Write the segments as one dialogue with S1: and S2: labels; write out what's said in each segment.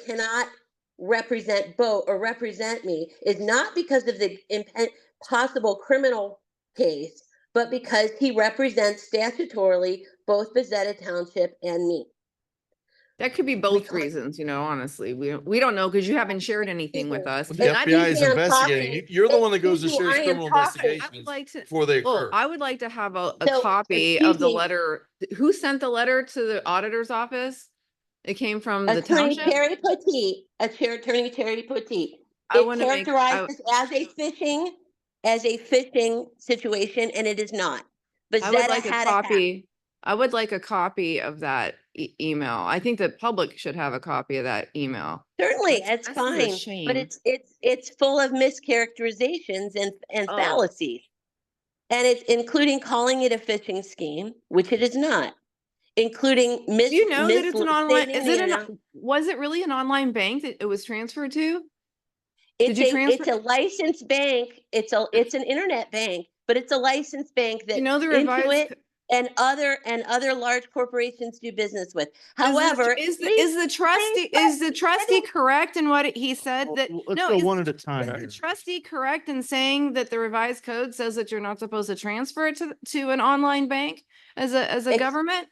S1: cannot represent Bo or represent me is not because of the impen- possible criminal case, but because he represents statutorily both Bezetta Township and me.
S2: That could be both
S1: can't-
S2: reasons, you know, honestly. We, don't- we don't know because you haven't shared anything with
S1: Either.
S2: us. and
S3: Well, The
S2: I
S3: FBI
S2: think-
S3: is
S1: I'm
S3: investigating.
S1: talking-
S3: You- You're the one that
S1: Excuse
S3: goes to
S1: me,
S3: serious
S1: I am
S3: criminal
S1: talking. I
S2: I would
S3: investigations
S2: like to,
S3: before they
S2: well,
S3: occur.
S2: I would like to have a,
S1: So,
S2: a copy of the
S1: excuse me.
S2: letter. Who sent the letter to the auditor's office? It came from the
S1: Attorney
S2: township?
S1: Terry Potteet, uh, Chair Attorney Terry Potteet.
S2: I
S1: It
S2: wanna make- I-
S1: characterized this as a fishing, as a fishing situation, and it is not.
S2: I would
S1: Bezetta
S2: like a
S1: had a hat.
S2: copy. I would like a copy of that e- email. I think the public should have a copy of that email.
S1: Certainly,
S2: That's-
S1: that's
S2: that's a
S1: fine,
S2: shame.
S1: but it's, it's, it's full of mischaracterizations and, and
S2: Oh.
S1: fallacies. And it's including calling it a phishing scheme, which it is not, including mis.
S2: Do you know that it's an online,
S1: misstating
S2: is
S1: the
S2: it
S1: amount-
S2: an, was it really an online bank that it was transferred to?
S1: It's
S2: you
S1: a,
S2: transfer-
S1: it's a licensed bank. It's a, it's an internet bank, but it's a licensed bank
S2: Do
S1: that
S2: You know, the
S1: Intuit
S2: revised. co-
S1: and other, and other large corporations do business with.
S2: Is the tr-
S1: However.
S2: Is, the-
S1: please-
S2: is the trustee, is the trustee correct in what he said
S4: Well,
S2: that,
S4: well,
S2: no,
S4: Let's go
S2: is-
S4: one at a
S2: is
S4: time
S2: the
S4: here.
S2: trustee correct in saying that the revised code says that you're not supposed to transfer it to, to an online bank as a, as a
S1: Ex-
S2: government?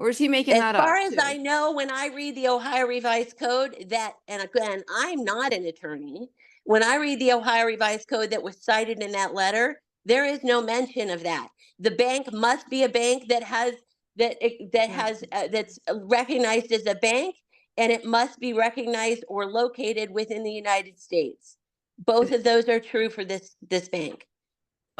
S2: Or is he making
S1: As
S2: that up?
S1: far as
S2: too?
S1: I know, when I read the Ohio Revised Code, that, and again, I'm not an attorney. When I read the Ohio Revised Code that was cited in that letter, there is no mention of that. The bank must be a bank that has, that, it- that
S2: Mhm.
S1: has, uh, that's uh, recognized as a bank, and it must be recognized or located within the United States. Both of those are true for this, this bank.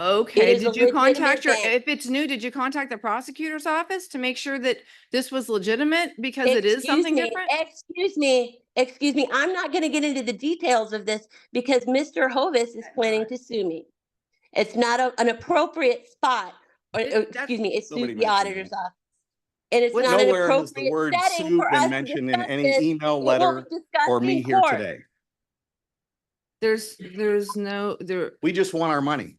S2: Okay,
S1: is a
S2: did you
S1: legitimate
S2: contact your,
S1: bank.
S2: if it's new, did you contact the prosecutor's office to make sure that this was legitimate because it is
S1: Excuse
S2: something
S1: me,
S2: different?
S1: Excuse me, excuse me, I'm not gonna get into the details of this because Mr. Hovis is planning to sue me. It's not a- an appropriate spot, or,
S2: It-
S1: or,
S2: that's-
S1: excuse me, it's
S5: Nobody
S1: the
S5: mentioned
S1: auditor's office. And it's
S2: What-
S1: not an
S5: Nowhere has the
S1: appropriate
S5: word
S1: setting
S5: sue
S1: for us
S5: been
S1: to
S5: mentioned in
S1: discuss this,
S5: any email,
S1: but what
S5: letter,
S1: we discussed
S5: or me
S1: in
S5: here
S1: court.
S5: today.
S2: There's, there's no, there,
S5: We just want our money.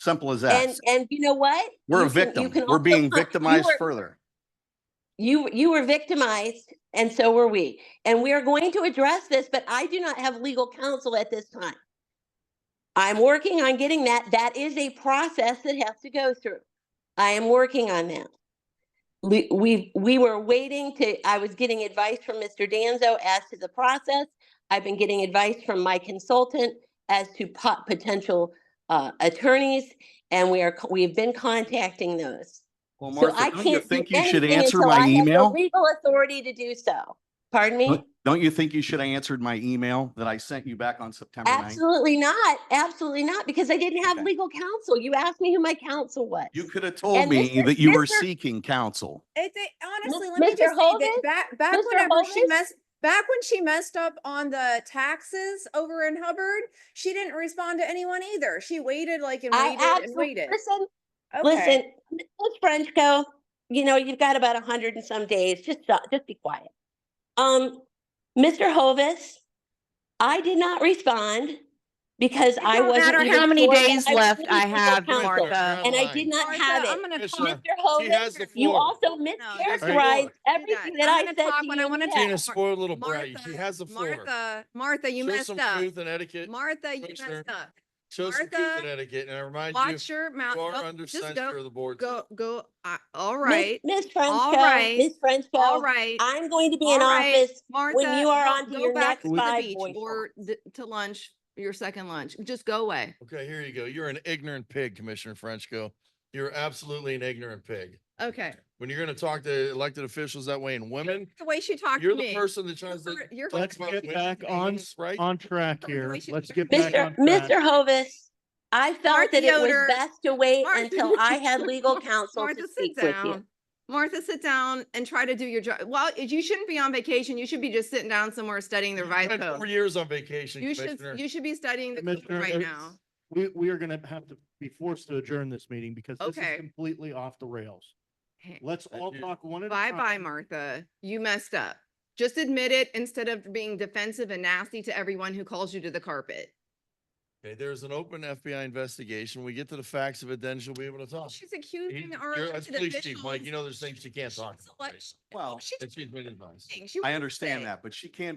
S5: Simple as that.
S1: And, and you know what?
S5: We're a
S1: You can- you
S5: victim.
S1: can
S5: We're
S1: also
S5: being
S1: con- you
S5: victimized
S1: were-
S5: further.
S1: You, you were victimized and so were we. And we are going to address this, but I do not have legal counsel at this time. I'm working on getting that. That is a process that has to go through. I am working on that. We, we, we were waiting to, I was getting advice from Mr. Danzo as to the process. I've been getting advice from my consultant as to pot, potential, uh, attorneys. And we are, co- we've been contacting those.
S5: Well,
S1: So I
S5: Martha, don't you
S1: can't do
S5: think you should
S1: anything
S5: answer
S1: until I
S5: my
S1: have the
S5: email?
S1: legal authority to do so. Pardon me?
S5: Don't don't you think you should have answered my email that I sent you back on September 9th?
S1: Absolutely not. Absolutely not, because I didn't have
S5: Okay.
S1: legal counsel. You asked me who my counsel was.
S5: You could have
S1: And
S5: told me
S1: Mr.
S5: that you were
S6: Mr.
S5: seeking counsel.
S6: It's a, honestly,
S1: Mis-
S6: let me
S1: Mr.
S6: just say that
S1: Hovis?
S6: back, back
S1: Mr.
S6: whenever she
S1: Hovis?
S6: messed, back when she messed up on the taxes over in Hubbard, she didn't respond to anyone either. She waited like and
S1: I
S6: waited and
S1: absolutely,
S6: waited.
S1: listen,
S6: Okay.
S1: listen, Ms. Frenchco, you know, you've got about a hundred and some days. Just, shut- just be quiet. Um, Mr. Hovis, I did not respond because I
S6: don't
S1: wasn't.
S7: matter
S1: even
S7: how many
S1: sure that
S7: days
S1: was
S7: left
S1: giving
S7: I
S1: legal
S7: have,
S1: counsel,
S7: Martha.
S1: And I did not
S2: Martha,
S1: have
S2: I'm
S1: it.
S2: gonna
S3: Yes,
S2: talk.
S3: ma'am.
S1: Mr. Hovis,
S3: has the
S1: you
S3: floor.
S1: also
S3: the floor.
S1: mischaracterized everything that I
S2: I'm gonna
S1: said
S2: talk
S1: to
S2: when I
S1: you
S2: wanna
S1: today.
S2: Yeah,
S3: Tina, spoiled little brat. She
S6: Martha,
S3: has the floor.
S6: Martha, Martha, you
S3: Show
S6: messed
S3: some
S6: up.
S3: Truth and etiquette.
S6: Martha, you
S3: Commissioner,
S6: messed up.
S3: Show some truth
S6: Martha,
S3: and etiquette. And I remind you,
S2: watch your mouth.
S3: you are
S2: Oh,
S3: under
S2: just
S3: censure
S2: go-
S3: of the board.
S2: Go, go, I- all
S1: Miss-
S2: right,
S1: Miss Frenchco,
S2: right.
S1: Miss
S2: all
S1: Frenchco,
S2: right.
S1: I'm going to be in
S2: All right,
S1: office.
S2: Martha,
S1: you are
S2: go-
S1: on to
S2: go
S1: your
S2: back
S1: next
S2: to the
S1: five
S2: beach
S1: voice
S2: Or th- to lunch, your second lunch. Just go away.
S3: Okay, here you go. You're an ignorant pig, Commissioner Frenchco. You're absolutely an ignorant pig.
S2: Okay.
S3: When you're going to talk to elected officials that way and women,
S6: The way she talked
S3: you're
S6: to
S3: the
S6: me.
S3: person that tries to.
S6: You're- you're-
S3: talk
S6: Let's
S3: about
S4: get
S3: women
S4: back
S3: and
S4: on-
S3: things, Right?
S4: On track
S6: We
S4: here.
S6: should-
S4: Let's get back
S1: Mr.
S4: on track.
S1: Mr. Hovis, I felt
S6: Martha
S1: that it was
S6: Yoder.
S1: best to wait
S6: Martha-
S1: until I had legal counsel
S6: Martha,
S1: to
S6: sit
S1: speak with you.
S6: down. Martha, sit down and try to do your job. Well, you shouldn't be on vacation. You should be just sitting down somewhere studying the
S3: You've
S6: revised
S3: been Four
S6: code.
S3: years on vacation,
S6: You should,
S3: Commissioner.
S6: you should be studying the code
S4: Commissioner,
S6: right
S4: it's-
S6: now.
S4: We, we are gonna have to be forced to adjourn this meeting because this
S6: Okay.
S4: is completely off the rails.
S2: Hey,
S4: Let's
S3: Thank
S4: all
S3: you.
S4: talk one at a
S6: Bye
S4: time.
S6: bye, Martha. You messed up. Just admit it instead of being defensive and nasty to everyone who calls you to the carpet.
S3: Okay, there's an open FBI investigation. We get to the facts of it, then she'll be able to talk.
S6: She's accusing
S3: Oh, You-
S6: our
S3: you're-
S6: elected
S3: that's Police chief, Mike,
S6: officials.
S3: you know there's things she can't
S6: She's
S3: talk about.
S6: elect-
S3: right?
S5: Well,
S6: She's
S3: That she's been advised.
S6: lying. She
S5: I
S6: wouldn't say
S5: understand
S6: it.
S5: that, but she can be